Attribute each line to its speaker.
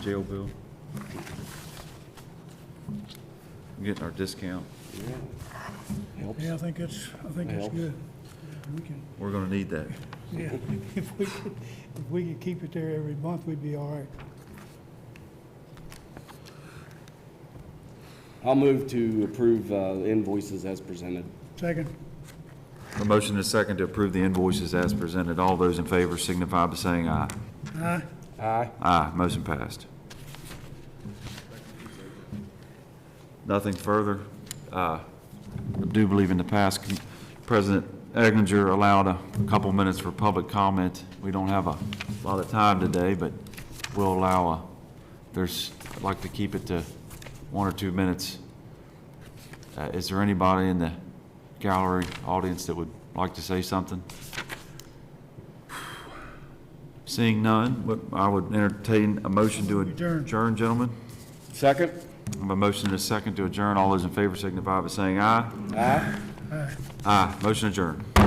Speaker 1: jail bill. Getting our discount.
Speaker 2: Helps.
Speaker 3: Yeah, I think it's, I think it's
Speaker 2: Helps.
Speaker 3: good. We can,
Speaker 1: We're gonna need that.
Speaker 3: yeah, if we could, if we could keep it there every month, we'd be all right.
Speaker 2: I'll move to approve uh, invoices as presented.
Speaker 3: Second,
Speaker 1: A motion and a second to approve the invoices as presented. All those in favor signify by saying aye.
Speaker 3: aye,
Speaker 2: Aye.
Speaker 1: Aye, motion passed. Nothing further. Uh, I do believe in the past, President Egninger allowed a couple minutes for public comment. We don't have a lot of time today, but we'll allow, a- there's, I'd like to keep it to one or two minutes. Uh, Is there anybody in the gallery, audience that would like to say something? Seeing none, what- I would entertain a motion to
Speaker 3: Adjourn.
Speaker 1: adjourn, gentlemen.
Speaker 2: Second?
Speaker 1: I have a motion and a second to adjourn. All those in favor signify by saying aye.
Speaker 2: Aye.
Speaker 3: aye.
Speaker 1: Aye. Motion adjourned.